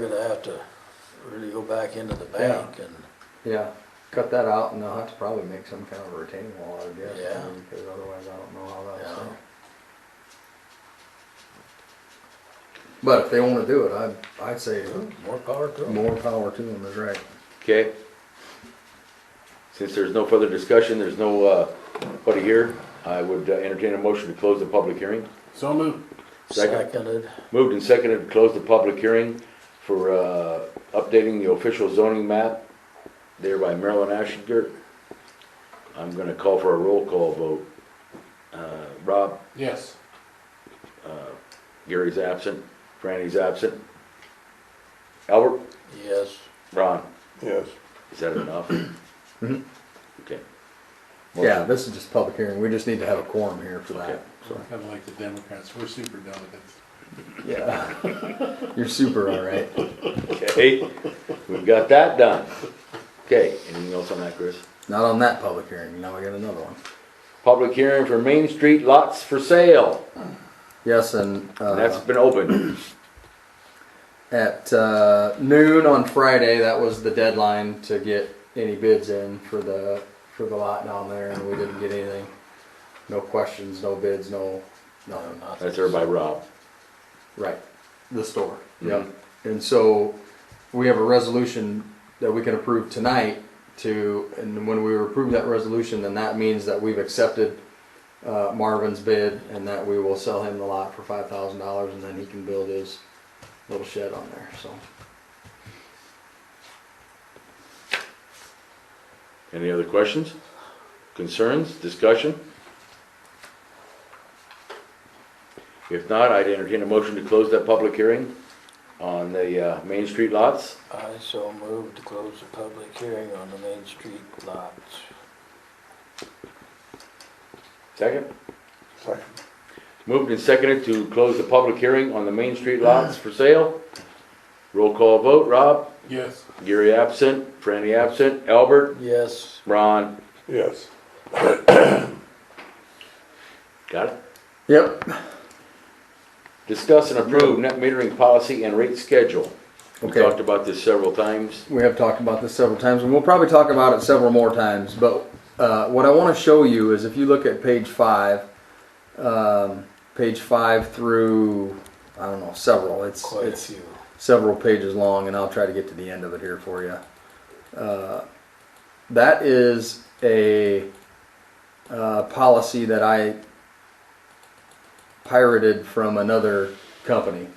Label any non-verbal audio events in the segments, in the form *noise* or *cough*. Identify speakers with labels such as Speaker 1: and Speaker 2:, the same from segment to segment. Speaker 1: We're gonna have to really go back into the bank and,
Speaker 2: Yeah, cut that out and they'll have to probably make some kind of retaining wall, I guess. I
Speaker 1: Yeah.
Speaker 2: mean, Because otherwise I don't know how
Speaker 1: Yeah.
Speaker 2: that's done. But if they wanna do it, I'd, I'd say
Speaker 1: more power to them.
Speaker 2: more power to them is right.
Speaker 3: Okay? Since there's no further discussion, there's no, uh, buddy here, I would uh, entertain a motion to close the public hearing.
Speaker 4: So moved.
Speaker 3: Second.
Speaker 1: Seconded,
Speaker 3: Moved and seconded to close the public hearing for, uh, updating the official zoning map there by Marilyn Ashinger. I'm gonna call for a roll call vote. Uh, Rob,
Speaker 4: Yes.
Speaker 3: Gary's absent, Franny's absent. Albert,
Speaker 1: yes,
Speaker 3: Ron,
Speaker 4: Yes.
Speaker 3: is that enough? Okay.
Speaker 2: Yeah, this is just public hearing. We just need to have a quorum here for
Speaker 3: Okay.
Speaker 2: that. So,
Speaker 4: Kind of like the Democrats, we're super delegates.
Speaker 2: yeah. *laughs* You're super, all right.
Speaker 3: Okay, we've got that done. Okay, anything else on that, Chris?
Speaker 2: Not on that public hearing. Now we got another one.
Speaker 3: Public hearing for Main Street lots for sale.
Speaker 2: Yes, and, uh.
Speaker 3: And that's been open.
Speaker 2: at uh, noon on Friday. That was the deadline to get any bids in for the for the lot down there, and we didn't get anything. No questions, no bids, no
Speaker 1: no,
Speaker 2: nothing.
Speaker 1: nothing.
Speaker 3: That's there by Rob.
Speaker 2: Right, the store.
Speaker 3: Mhm.
Speaker 2: Yeah, and so we have a resolution that we can approve tonight. To and when we approve that resolution, then that means that we've accepted uh, Marvin's bid, and that we will sell him the lot for five thousand dollars, and then he can build his little shed on there. So.
Speaker 3: Any other questions, concerns, discussion? If not, I'd entertain a motion to close that public hearing on the uh, Main Street lots.
Speaker 1: I so moved to close the public hearing on the Main Street lots.
Speaker 3: Second? Second. Moved and seconded to close the public hearing on the Main Street lots for sale. Roll call vote, Rob?
Speaker 4: Yes.
Speaker 3: Gary absent, Franny absent, Albert,
Speaker 1: Yes,
Speaker 3: Ron,
Speaker 4: Yes.
Speaker 3: got it?
Speaker 2: Yep.
Speaker 3: Discuss and approve net metering policy and rate schedule. We
Speaker 2: Okay.
Speaker 3: talked about this several times.
Speaker 2: We have talked about this several times, and we'll probably talk about it several more times. But uh, what I want to show you is if you look at page five, um, page five through I don't know several. It's
Speaker 1: quite a
Speaker 2: it's
Speaker 1: few.
Speaker 2: several pages long, and I'll try to get to the end of it here for you. Uh, that is a uh, policy that I pirated from another company,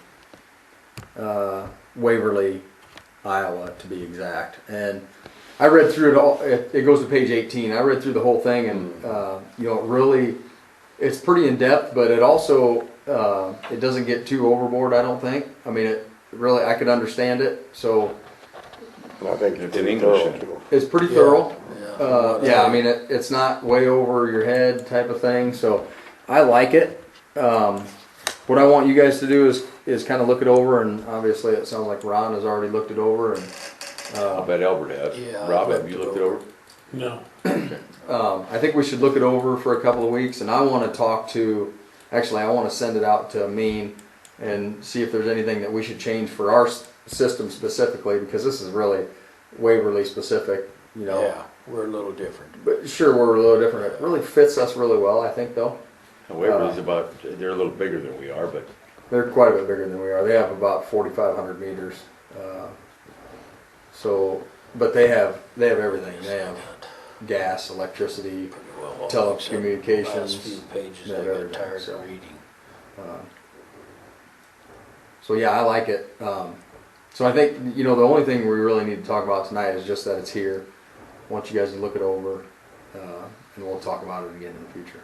Speaker 2: uh, Waverly, Iowa, to be exact. And I read through it all. It, it goes to page 18. I read through the whole thing, and uh, you know, it really, it's pretty in depth, but it also uh, it doesn't get too overboard. I don't think. I mean, it really I could understand it, so
Speaker 5: I think
Speaker 3: It's
Speaker 5: it's
Speaker 3: in
Speaker 5: in
Speaker 3: English.
Speaker 2: it's pretty thorough.
Speaker 1: Yeah,
Speaker 2: Uh, yeah, I mean, it, it's not way over your head type of thing, so I like it. Um, what I want you guys to do is is kind of look it over, and obviously it sounds like Ron has already looked it over, and
Speaker 3: I bet Albert has.
Speaker 1: Yeah, I
Speaker 3: Rob, have
Speaker 1: looked it
Speaker 3: you looked it
Speaker 1: over.
Speaker 3: over?
Speaker 4: No.
Speaker 2: um, I think we should look it over for a couple of weeks, and I want to talk to. Actually, I want to send it out to Mean and see if there's anything that we should change for our s- system specifically, because this is really Waverly specific. You know,
Speaker 1: Yeah, we're a little different.
Speaker 2: but sure, we're a little different. It really fits us really well, I think, though.
Speaker 3: Waverly's
Speaker 2: Uh,
Speaker 3: about, they're a little bigger than we are, but
Speaker 2: They're quite a bit bigger than we are. They have about 4,500 meters. Uh, so, but they have they have everything. They have gas, electricity.
Speaker 1: Pretty well all
Speaker 2: Telecommunications,
Speaker 1: Last few pages,
Speaker 2: that
Speaker 1: I got
Speaker 2: everything,
Speaker 1: tired
Speaker 2: so.
Speaker 1: of reading.
Speaker 2: Uh, So yeah, I like it. Um, so I think you know the only thing we really need to talk about tonight is just that it's here. I want you guys to look it over, uh, and we'll talk about it again in the future.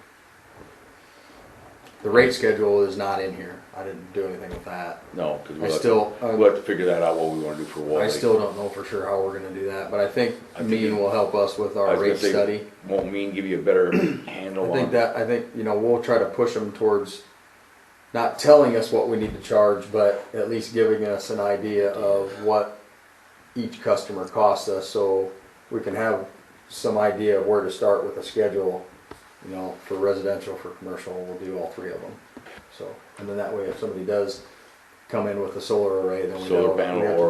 Speaker 2: The rate schedule is not in here. I didn't do anything with that.
Speaker 3: no, because
Speaker 2: I
Speaker 3: we'll have
Speaker 2: still-
Speaker 3: to, we'll have to figure that out, what we want to do for Wally.
Speaker 2: I still don't know for sure how we're gonna do that, but I think
Speaker 3: I think
Speaker 2: Mean
Speaker 3: it-
Speaker 2: will help us with
Speaker 3: I
Speaker 2: our
Speaker 3: was gonna
Speaker 2: rate
Speaker 3: say,
Speaker 2: study.
Speaker 3: Won't mean give you a
Speaker 2: *clears throat*
Speaker 3: better
Speaker 2: I
Speaker 3: handle
Speaker 2: think
Speaker 3: on,
Speaker 2: that, I think, you know, we'll try to push them towards not telling us what we need to charge, but at least giving us an idea of what each customer costs us, so we can have some idea of where to start with a schedule, you know, for residential, for commercial, we'll do all three of them. So, and then that way, if somebody does come in with a solar array, then we know.
Speaker 3: Solar
Speaker 2: that we
Speaker 3: panel
Speaker 2: have to
Speaker 3: or